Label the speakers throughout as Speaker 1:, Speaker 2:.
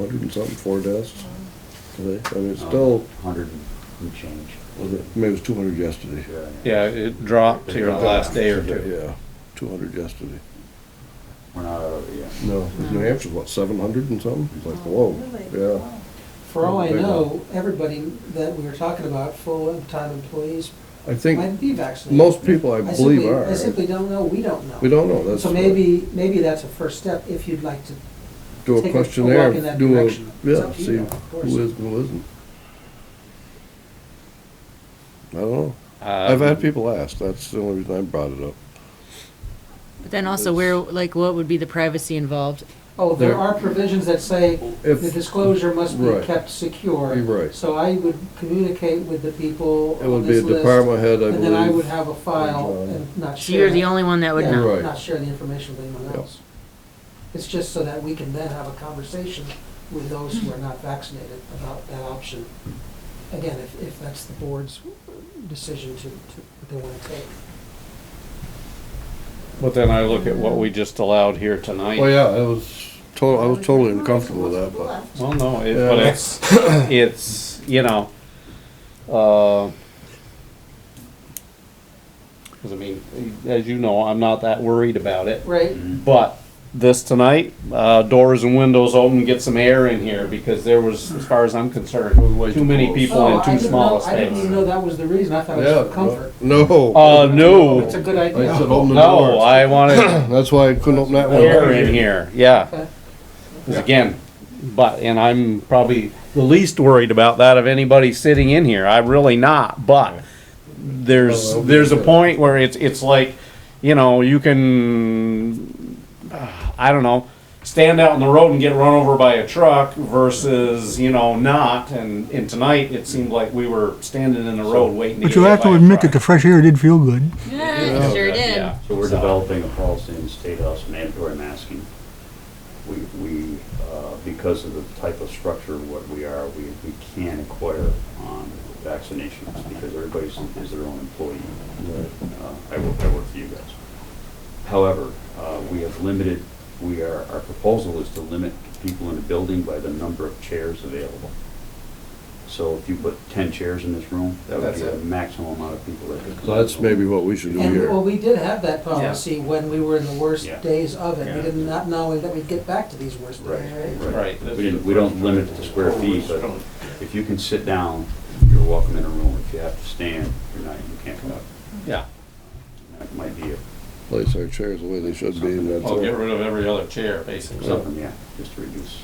Speaker 1: Hundred and something, four desks today. I mean, it's still,
Speaker 2: Hundred and change.
Speaker 1: was it- maybe it was two hundred yesterday.
Speaker 3: Yeah, it dropped here in the last day or two.
Speaker 1: Yeah, two hundred yesterday.
Speaker 2: We're not out of it yet.
Speaker 1: No, 'cause New Hampshire's what, seven hundred and something? It's like, whoa, yeah.
Speaker 4: Oh, For all I
Speaker 1: Big one.
Speaker 4: know, everybody that we were talking about, full-time employees,
Speaker 1: I think
Speaker 4: might be vaccinated.
Speaker 1: most people, I
Speaker 4: I
Speaker 1: believe,
Speaker 4: simply-
Speaker 1: are.
Speaker 4: I simply don't know, we don't know.
Speaker 1: We don't know, that's.
Speaker 4: So maybe, maybe that's a first step if you'd like to.
Speaker 1: Do
Speaker 4: take a-
Speaker 1: a
Speaker 4: a
Speaker 1: questionnaire,
Speaker 4: walk in that
Speaker 1: do a,
Speaker 4: direction. It's
Speaker 1: yeah,
Speaker 4: up to
Speaker 1: see
Speaker 4: you, of course.
Speaker 1: who is, and who isn't. I don't know.
Speaker 3: Uh,
Speaker 1: I've had people ask, that's the only reason I brought it up.
Speaker 5: But then also where, like, what would be the privacy involved?
Speaker 4: Oh, there
Speaker 1: There-
Speaker 4: are provisions that say the
Speaker 1: If,
Speaker 4: disclosure must be
Speaker 1: Right.
Speaker 4: kept secure.
Speaker 1: You're right.
Speaker 4: So I would communicate with the people
Speaker 1: it
Speaker 4: on
Speaker 1: would be a
Speaker 4: this list.
Speaker 1: department head, I
Speaker 4: And then I
Speaker 1: believe.
Speaker 4: would have a file
Speaker 1: John.
Speaker 4: and not
Speaker 5: So
Speaker 4: share.
Speaker 5: you're the
Speaker 4: it.
Speaker 5: only one that would
Speaker 4: Yeah,
Speaker 5: know.
Speaker 1: Right.
Speaker 4: Not share the information with anyone
Speaker 1: Yeah.
Speaker 4: else. It's just so that we can then have a conversation with those who are not vaccinated about that option. Again, if, if that's the board's decision to, to, that they wanna take.
Speaker 3: But then I look at what we just allowed here tonight.
Speaker 1: Well, Oh, yeah, I was total, I was totally uncomfortable with that, but.
Speaker 3: Well, no, it,
Speaker 1: Yeah.
Speaker 3: but it's, it's, you know, uh, cause I mean, as you know, I'm not that worried about it.
Speaker 4: Right,
Speaker 3: But this tonight, uh, doors and windows open, get some air in here because there was, as far as I'm concerned, too many people
Speaker 4: Oh,
Speaker 3: in
Speaker 4: I
Speaker 3: too
Speaker 4: didn't
Speaker 3: small a
Speaker 4: know- I didn't even
Speaker 3: space.
Speaker 4: know that was the reason, I thought it
Speaker 1: Yeah,
Speaker 4: was for comfort.
Speaker 1: No.
Speaker 3: Uh, no,
Speaker 4: It's a good
Speaker 1: I said "Oh,
Speaker 4: idea.
Speaker 1: open the
Speaker 3: no,
Speaker 1: door.
Speaker 3: I wanted
Speaker 1: That's why I couldn't open that one.
Speaker 3: air in here, yeah.
Speaker 4: Okay.
Speaker 3: 'Cause again, but, and I'm probably the least worried about that of anybody sitting in here, I'm really not, but there's,
Speaker 1: Well,
Speaker 3: there's a
Speaker 1: okay.
Speaker 3: point where it's, it's like, you know, you can, uh, I don't know, stand out in the road and get run over by a truck versus, you know, not, and, and tonight, it seemed like we were standing in the road waiting to
Speaker 6: But
Speaker 3: get
Speaker 6: you
Speaker 3: hit
Speaker 6: have
Speaker 3: by
Speaker 6: to
Speaker 3: a
Speaker 6: admit
Speaker 3: truck.
Speaker 6: that the fresh air did feel good.
Speaker 5: Yeah, sure did.
Speaker 3: Yeah.
Speaker 2: So we're developing a policy in the state house of mandatory masking. We, we, uh, because of the type of structure of what we are, we, we can inquire on vaccinations because everybody's, is their own employee. Uh, I work, I work for you guys. However, uh, we have limited, we are, our proposal is to limit people in a building by the number of chairs available. So if you put ten chairs in this room, that would
Speaker 3: That's
Speaker 2: be the
Speaker 3: it.
Speaker 2: maximum amount of people that could. come
Speaker 1: So that's
Speaker 2: in the room.
Speaker 1: maybe what we should do
Speaker 4: And, well,
Speaker 1: here.
Speaker 4: we did have that policy when we were in the worst
Speaker 2: Yeah.
Speaker 4: days of it, we
Speaker 2: Yeah.
Speaker 4: did not know that we'd get back to these worst days, right?
Speaker 3: Right.
Speaker 2: We didn't, we don't limit the square feet, but if you can sit down, you're welcome in a room. If you have to stand, you're not, you can't come up.
Speaker 3: Yeah.
Speaker 2: That might be a-
Speaker 1: Place our chairs the way they should be and that's
Speaker 3: Well, Oh, get
Speaker 1: it.
Speaker 3: rid of every other chair, basically.
Speaker 2: something, yeah, just to reduce.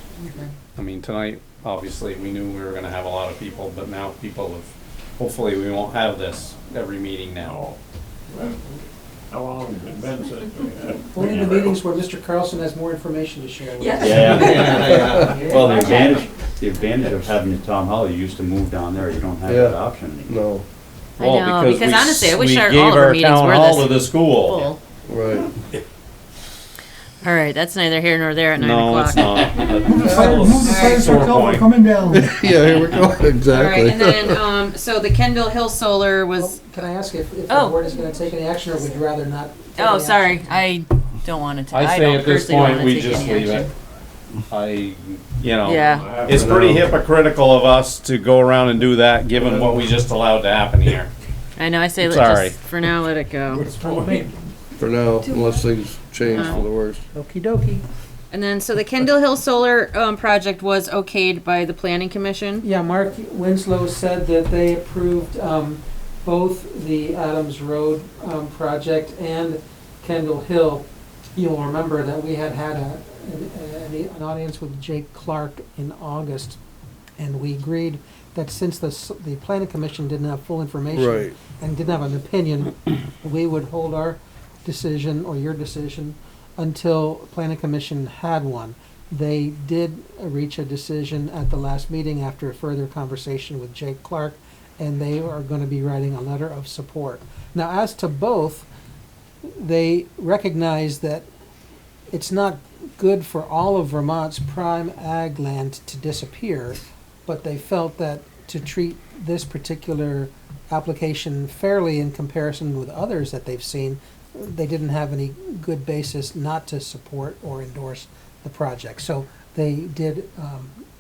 Speaker 3: I mean, tonight, obviously, we knew we were gonna have a lot of people, but now people have, hopefully, we won't have this every meeting now.
Speaker 7: How long has it been since we had?
Speaker 4: Only the meetings where Mr. Carlson has more information to share with us.
Speaker 2: Well, the advantage, the advantage of having the Tom Holly, you used to move down there, you don't have that
Speaker 1: Yeah.
Speaker 2: option anymore.
Speaker 1: No,
Speaker 5: I know, because
Speaker 3: we s-
Speaker 5: honestly, I wish
Speaker 3: we
Speaker 5: our- all
Speaker 3: gave
Speaker 5: of our meetings were
Speaker 3: town hall
Speaker 5: this
Speaker 3: to the school.
Speaker 5: All
Speaker 1: right.
Speaker 5: right, that's neither here nor there at nine
Speaker 3: No, it's
Speaker 5: o'clock.
Speaker 3: not.
Speaker 6: Move the fire
Speaker 3: Sore
Speaker 6: truck over,
Speaker 3: point.
Speaker 6: coming down.
Speaker 1: Yeah, here we go,
Speaker 5: All right, and
Speaker 1: exactly.
Speaker 5: then, um, so the Kendall Hill Solar was,
Speaker 4: Oh, Can I ask if, if the
Speaker 5: Oh.
Speaker 4: board is gonna take any action, or would you rather not? take
Speaker 5: oh,
Speaker 4: any
Speaker 5: sorry,
Speaker 4: action?
Speaker 5: I don't want to take,
Speaker 3: I
Speaker 5: I
Speaker 3: say
Speaker 5: don't
Speaker 3: at this
Speaker 5: personally
Speaker 3: point,
Speaker 5: want to
Speaker 3: we
Speaker 5: take
Speaker 3: just
Speaker 5: any
Speaker 3: leave it.
Speaker 5: action.
Speaker 3: I, you know.
Speaker 5: Yeah,
Speaker 3: It's pretty hypocritical of us to go around and do that, given what we just allowed to happen here.
Speaker 5: I know, I say
Speaker 3: I'm
Speaker 5: let
Speaker 3: sorry.
Speaker 5: just, for now, let it go.
Speaker 1: For now, unless things change
Speaker 4: Uh-huh.
Speaker 1: for the worse.
Speaker 5: Okey dokey. And then, so the Kendall Hill Solar, um, project was okayed by the planning commission?
Speaker 4: Yeah, Mark Winslow said that they approved um, both the Adams Road um, project and Kendall Hill. You'll remember that we had had a, an- an audience with Jake Clark in August, and we agreed that since the, s- the planning commission didn't have full information
Speaker 1: Right,
Speaker 4: and didn't have an opinion, we would hold our decision or your decision until planning commission had one. They did uh, reach a decision at the last meeting after a further conversation with Jake Clark, and they are going to be writing a letter of support. Now, as to both, they recognize that it's not good for all of Vermont's prime ag land to disappear, but they felt that to treat this particular application fairly in comparison with others that they've seen, they didn't have any good basis not to support or endorse the project. So they did, um,